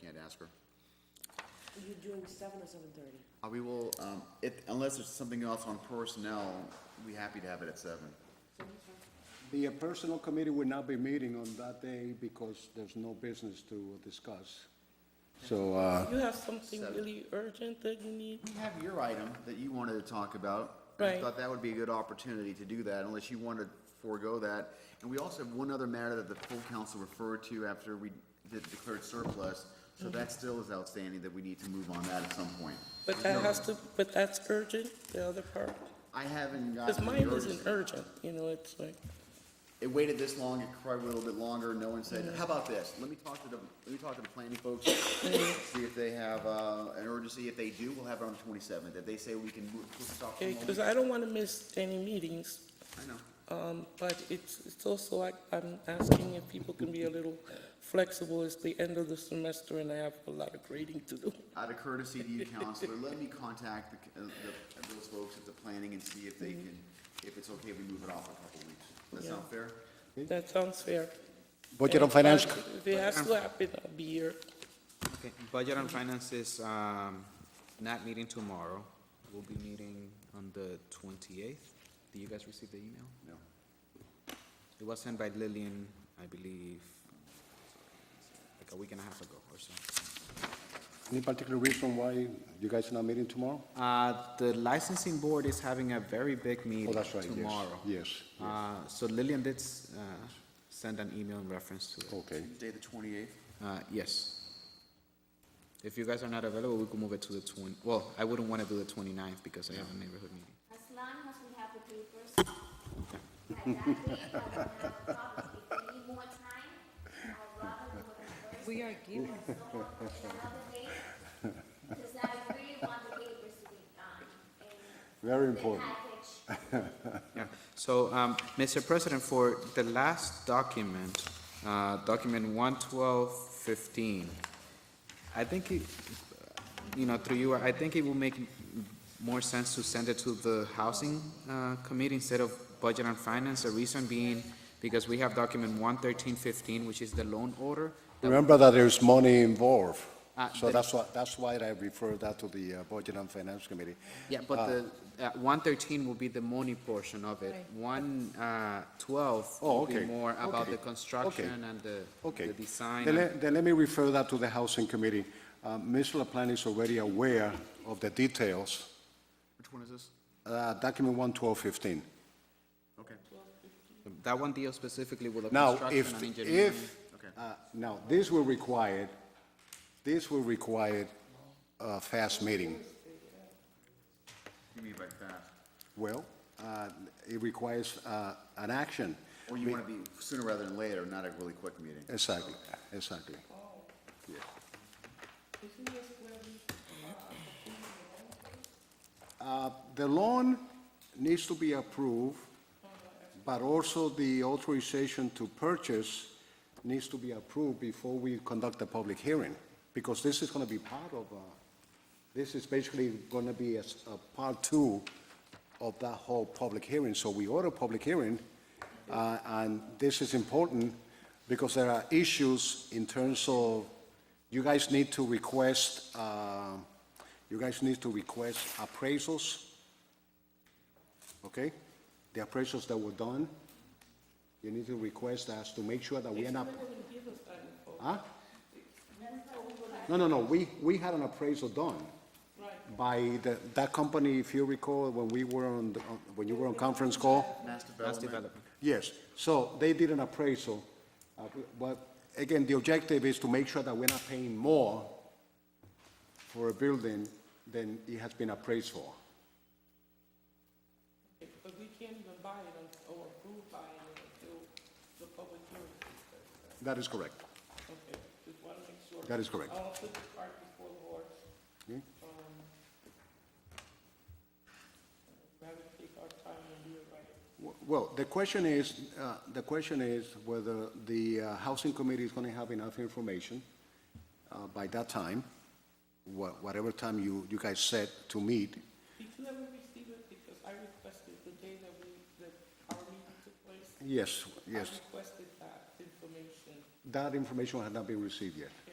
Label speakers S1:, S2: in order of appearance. S1: can't ask her.
S2: You're doing seven or seven thirty?
S1: Uh, We will, um, if, unless there's something else on personnel, we happy to have it at seven.
S3: The uh, Personnel Committee will not be meeting on that day because there's no business to discuss. So, uh,
S4: You have something really urgent that you need?
S1: We have your item that you wanted to talk about. I
S4: Right.
S1: thought that would be a good opportunity to do that unless you wanted to forego that. And we also have one other matter that the full council referred to after we did- declared surplus. So
S4: Mm-hmm.
S1: that still is outstanding that we need to move on that at some point.
S4: But that has to, but that's urgent, the other part?
S1: I haven't gotten.
S4: Because
S1: the
S4: mine
S1: urgency.
S4: isn't urgent, you know, it's like,
S1: it waited this long, it probably went a little bit longer, no one said, how about this? Let me talk to the, let me talk to the planning folks, see if they have, uh, an urgency, if they do, we'll have it on the twenty-seventh, if they say we can move, push this off for a
S4: okay,
S1: moment.
S4: because I don't want to miss any meetings,
S1: I know,
S4: um, but it's, it's also like, I'm asking if people can be a little flexible. It's the end of the semester and I have a lot of grading to do.
S1: out of courtesy to you, counselor, let me contact the, uh, the, those folks at the planning and see if they can, if it's okay if we move it off a couple weeks. Does that sound fair?
S4: That sounds fair.
S3: Budget and Finance,
S4: But If it has to happen, I'll be here.
S5: Okay, Budget and Finance is, um, not meeting tomorrow. We'll be meeting on the twenty-eighth. Did you guys receive the email?
S1: No.
S5: It was sent by Lillian, I believe, like a week and a half ago or so.
S3: any particular reason why you guys are not meeting tomorrow?
S5: Uh, the licensing board is having a very big
S3: Oh,
S5: meeting
S3: that's right, yes,
S5: tomorrow.
S3: yes,
S5: Uh, so Lillian did, s- uh, send an email in reference to it.
S3: Okay.
S1: Tuesday the twenty-eighth?
S5: Uh, yes. If you guys are not available, we could move it to the twenty, well, I wouldn't wanna do the twenty-ninth because I have a neighborhood meeting.
S6: As long as we have the papers. By that date, I will have copies. If we need more time, I'll rather do it first.
S7: We are
S6: Or
S7: giving,
S6: so on another date, because I really want the papers to be done. in
S3: Very
S6: the
S3: important.
S6: package.
S5: Yeah. So, um, Mr. President, for the last document, uh, document one twelve fifteen, I think it, you know, through you, I think it will make m- more sense to send it to the Housing uh, Committee instead of Budget and Finance. The reason being, because we have document one thirteen fifteen, which is the loan order.
S3: Remember that there's money involved,
S5: Uh,
S3: so
S5: the-
S3: that's why, that's why I refer that to the uh, Budget and Finance Committee.
S5: Yeah,
S3: Ah.
S5: but the, uh, one thirteen will be the money portion of it. One, uh, twelve
S3: Oh,
S5: will be
S3: okay.
S5: more about
S3: Okay.
S5: the
S3: Okay.
S5: construction and the,
S3: Okay.
S5: the design.
S3: Then
S5: and-
S3: let, then let me refer that to the Housing Committee. Uh, Ms. LaPlante is already aware of the details,
S1: Which one is this?
S3: uh, document one twelve fifteen.
S1: Okay.
S5: That one deals specifically with the
S3: Now,
S5: construction
S3: if,
S5: and engineering.
S3: if,
S1: Okay.
S3: uh, now, this will require, this will require a fast meeting.
S1: You mean by that?
S3: Well, uh, it requires uh, an action.
S1: Or you wanna be sooner rather than later, not a really quick meeting?
S3: Exactly, exactly. Uh, The loan needs to be approved, but also the authorization to purchase needs to be approved before we conduct the public hearing, because this is going to be part of, uh, this is basically going to be a s- a part two of that whole public hearing. So we order a public hearing, uh, and this is important because there are issues in terms of, you guys need to request, uh, you guys need to request appraisals, okay? The appraisals that were done, you need to request us to make sure that we end up. Huh? No, no, no, we, we had an appraisal done by the, that company, if you recall, when we were on, the- on- when you were on conference call.
S1: Mass
S5: That's
S1: development?
S5: development.
S3: Yes, so they did an appraisal, uh, but again, the objective is to make sure that we're not paying more for a building than it has been appraised for.
S4: But we can't even buy it or approve buying it until the public hearing.
S3: That is correct.
S4: Okay, just want to make sure.
S3: That is correct.
S4: I don't put the cart before the horse.
S3: Okay.
S4: Um, Rather take our time and do it right.
S3: Well, the question is, uh, the question is whether the uh, housing committee is going to have enough information uh, by that time, wha- whatever time you, you guys set to meet.
S4: Did you ever receive it? Because I requested the day that we, that our meeting took place.
S3: Yes, yes,
S4: I requested that information.
S3: that information has not been received yet.